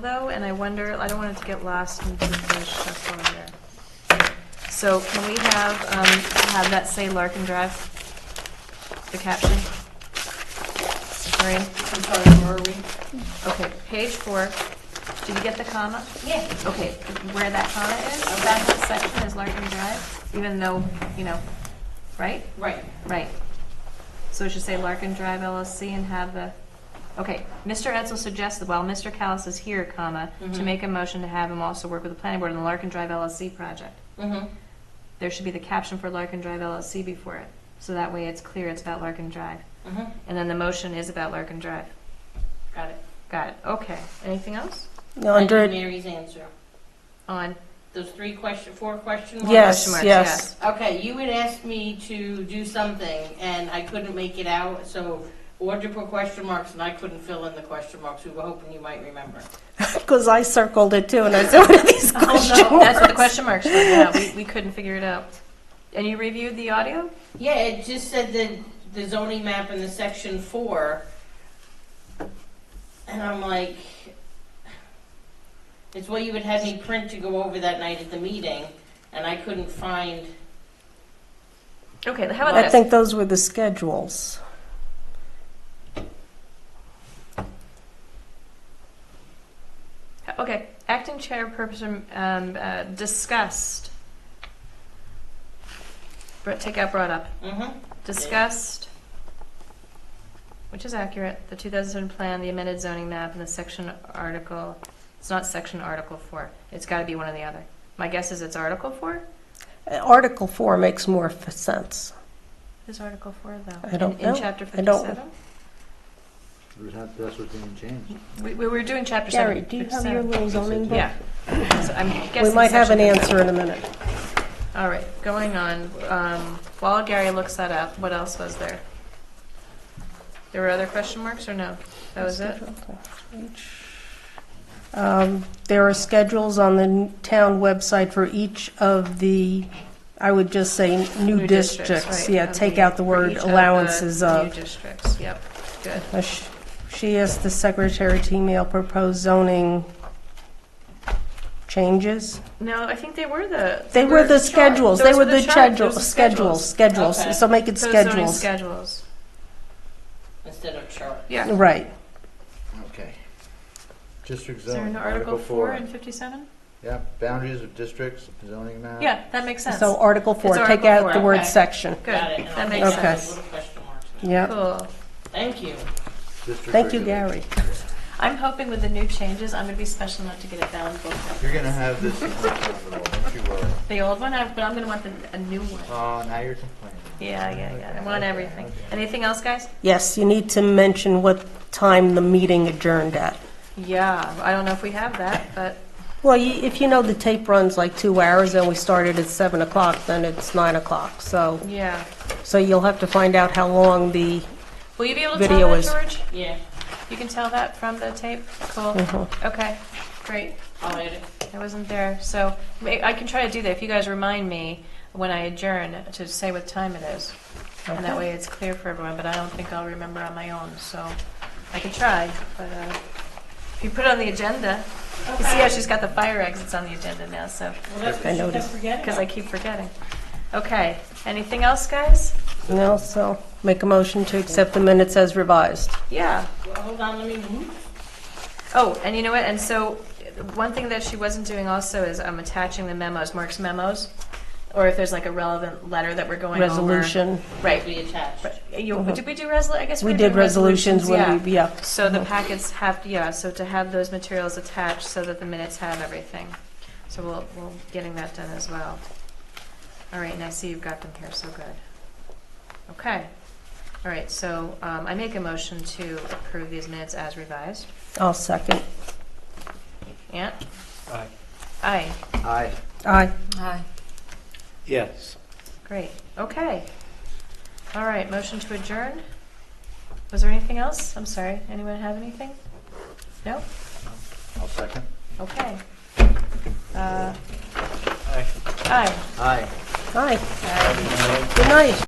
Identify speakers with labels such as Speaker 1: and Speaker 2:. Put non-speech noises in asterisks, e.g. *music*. Speaker 1: though, and I wonder, I don't want it to get lost in the stuff over there. So can we have, um, have that say Larkin Drive? The caption? Maureen?
Speaker 2: I'm sorry, where are we?
Speaker 1: Okay, page four. Did you get the comma?
Speaker 2: Yeah.
Speaker 1: Okay, where that comma is, that whole section is Larkin Drive, even though, you know, right?
Speaker 2: Right.
Speaker 1: Right. So it should say Larkin Drive LLC and have the, okay, Mr. Edsel suggests that while Mr. Callis is here, comma, to
Speaker 2: Mhm.
Speaker 1: make a motion to have him also work with the planning board on the Larkin Drive LLC project.
Speaker 2: Mm-hmm.
Speaker 1: There should be the caption for Larkin Drive LLC before it, so that way it's clear it's about Larkin Drive.
Speaker 2: Mm-hmm.
Speaker 1: And then the motion is about Larkin Drive.
Speaker 2: Got it.
Speaker 1: Got it, okay. Anything else?
Speaker 3: No, under,
Speaker 2: Mary's answer.
Speaker 1: On,
Speaker 2: Those three question, four question marks?
Speaker 3: yes,
Speaker 1: Question marks,
Speaker 3: yes.
Speaker 2: Okay, you had asked me to do something, and I couldn't make it out, so order put question marks, and I couldn't fill in the question marks. We were hoping you might remember.
Speaker 3: Because I circled it too, and I said, *laughs* what are these question *laughs* marks?
Speaker 1: Oh, that's what the question marks were, yeah, we, we couldn't figure it out. And you reviewed the audio?
Speaker 2: Yeah, it just said that the zoning map in the section four, and I'm like, it's what you would have me print to go over that night at the meeting, and I couldn't find,
Speaker 1: Okay, how
Speaker 3: I
Speaker 1: about this?
Speaker 3: think those were the schedules.
Speaker 1: Okay, acting chair person um, uh, discussed. Br- Take out brought up.
Speaker 2: mm-hmm,
Speaker 1: Discussed, which is accurate, the 2007 plan, the amended zoning map, and the section article. It's not section article four. It's got to be one or the other. My guess is it's article four.
Speaker 3: Uh, Article 4 makes more f- sense.
Speaker 1: Is article four though?
Speaker 3: I don't
Speaker 1: in, in
Speaker 3: know.
Speaker 1: chapter
Speaker 3: I don't-
Speaker 1: 57.
Speaker 4: It was not, that's what's being changed.
Speaker 1: We, we were doing chapter
Speaker 3: Gary,
Speaker 1: seven.
Speaker 3: do you have your little zoning book?
Speaker 1: Yeah. So I'm guessing
Speaker 3: We might have an
Speaker 1: section-
Speaker 3: answer in a minute.
Speaker 1: All right, going on, um, while Gary looks that up, what else was there? There were other question marks or no? That was it?
Speaker 3: Um, There are schedules on the n- town website for each of the, I would just say, new districts.
Speaker 1: right,
Speaker 3: Yeah,
Speaker 1: of
Speaker 3: take
Speaker 1: the-
Speaker 3: out the
Speaker 1: for
Speaker 3: word
Speaker 1: each of the
Speaker 3: allowances uh,
Speaker 1: New
Speaker 3: of.
Speaker 1: districts, yep, good.
Speaker 3: Uh, sh- She asked the secretary to email proposed zoning changes.
Speaker 1: No, I think they were the.
Speaker 3: They were the
Speaker 1: chart-
Speaker 3: schedules, they
Speaker 1: those
Speaker 3: were the
Speaker 1: chart-
Speaker 3: schedule,
Speaker 1: those were
Speaker 3: schedules,
Speaker 2: Okay.
Speaker 3: schedules, so make it
Speaker 1: So zoning
Speaker 3: schedules.
Speaker 1: schedules,
Speaker 2: instead of chart.
Speaker 1: yeah.
Speaker 3: Right,
Speaker 4: Okay. District
Speaker 1: Is there
Speaker 4: zone,
Speaker 1: an article four and fifty-seven?
Speaker 4: Yeah, boundaries of districts, zoning map.
Speaker 1: Yeah, that makes sense.
Speaker 3: so Article
Speaker 1: It's
Speaker 3: 4, take
Speaker 1: Article
Speaker 3: out the
Speaker 1: four,
Speaker 3: word
Speaker 2: okay.
Speaker 3: section.
Speaker 1: Good,
Speaker 2: Got it, and
Speaker 1: that
Speaker 2: I'll
Speaker 1: makes
Speaker 2: take out
Speaker 1: sense.
Speaker 2: those little question marks.
Speaker 3: Yeah,
Speaker 1: Cool.
Speaker 2: Thank you.
Speaker 4: District
Speaker 3: thank you,
Speaker 4: regulations.
Speaker 3: Gary.
Speaker 1: I'm hoping with the new changes, I'm gonna be special enough to get it bound book.
Speaker 4: You're gonna have this in your capital, don't you worry.
Speaker 1: The old one, I- but I'm gonna want the, a new one.
Speaker 4: Oh, now you're complaining.
Speaker 1: Yeah, yeah, yeah. I want
Speaker 4: Okay,
Speaker 1: everything.
Speaker 4: okay.
Speaker 1: Anything else, guys?
Speaker 3: Yes, you need to mention what time the meeting adjourned at.
Speaker 1: Yeah, I don't know if we have that, but
Speaker 3: Well, you- if you know the tape runs like two hours and we started at 7 o'clock, then it's 9 o'clock, so,
Speaker 1: yeah.
Speaker 3: so you'll have to find out how long the,
Speaker 1: Will you be able to
Speaker 3: Video
Speaker 1: tell that,
Speaker 3: is-
Speaker 1: George?
Speaker 2: Yeah,
Speaker 1: You can tell that from the tape? Cool.
Speaker 3: uh-huh.
Speaker 1: Okay, great.
Speaker 2: I'll add it.
Speaker 1: I wasn't there, so ma- I can try to do that if you guys remind me when I adjourn to say what time it is. And that way it's clear for everyone, but I don't think I'll remember on my own, so I can try. But uh, if you put it on the agenda, you see how she's got the fire exits on the agenda now, so.
Speaker 2: Well, that's
Speaker 3: I
Speaker 2: what you
Speaker 3: noticed.
Speaker 2: kept forgetting.
Speaker 1: Because I keep forgetting. Okay, anything else, guys?
Speaker 3: you know, so make a motion to accept the minutes as revised.
Speaker 1: Yeah.
Speaker 2: Well, Hold on, let me move.
Speaker 1: Oh, and you know what, and so, uh, one thing that she wasn't doing also is um, attaching the memos, Mark's memos, or if there's like a relevant letter that we're going over.
Speaker 3: Resolution, Uh-huh.
Speaker 1: Right.
Speaker 2: Be attached.
Speaker 1: But You, did we do resol, I guess we
Speaker 3: we
Speaker 1: were
Speaker 3: did
Speaker 1: doing
Speaker 3: resolutions
Speaker 1: yeah.
Speaker 3: when we, yeah.
Speaker 1: So the packets have, yeah, so to have those materials attached so that the minutes have everything. So we'll, we'll getting that done as well. All right, and I see you've got them here, so good. Okay. All right, so um, I make a motion to approve these minutes as revised.
Speaker 3: I'll second.
Speaker 1: Ant? Aye.
Speaker 4: Aye.
Speaker 3: Aye.
Speaker 1: Aye.
Speaker 5: Yes.
Speaker 1: Great, okay. All right, motion to adjourn. Was there anything else? I'm sorry, anyone have anything? No?
Speaker 4: I'll second.
Speaker 1: Okay. Uh, Aye.
Speaker 4: Aye.
Speaker 3: Aye. Good night.